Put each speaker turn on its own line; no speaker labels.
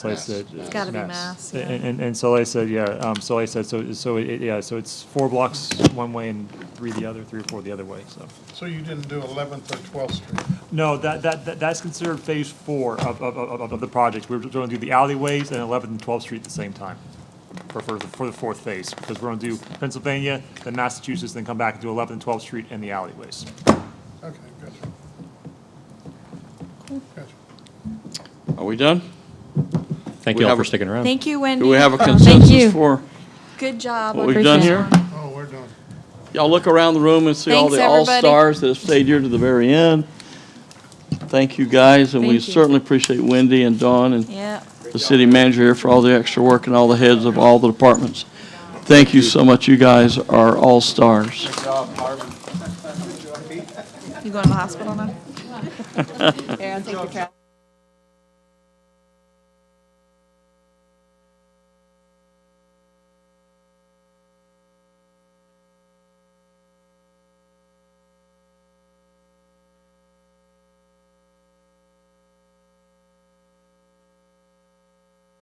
So I said.
It's
uh,
gotta be mass, yeah.
And, and- and so I said, yeah, um, so I said, so, so, it- yeah, so it's four blocks one way and three the other, three or four the other way, so.
So you didn't do 11th or 12th Street?
No, that, that, that- that's considered phase four of, of, of, of the project. We're going to do the alleyways and 11th and 12th Street at the same time for, for, the- for the fourth phase, because we're going to do Pennsylvania, then Massachusetts, then come back and do 11th and 12th Street and the alleyways.
Okay, gotcha. Gotcha.
Are we done?
Thank
We
you all
have
for
a-
sticking around.
Thank you, Wendy.
Do we have a
Mm-hmm. Thank you.
consensus for
Good job.
what
on
we've
this
done
one.
here?
Oh, we're done.
Y'all look around the room and see all
Thanks,
the
everybody.
all-stars that have stayed here to the very end. Thank you, guys, and we
Thank you.
certainly appreciate Wendy and Dawn and
Yeah.
the city manager here for all the extra work and all the heads of all the departments. Thank you so much. You guys are all-stars.
You going to the hospital now?
Aaron, thank you for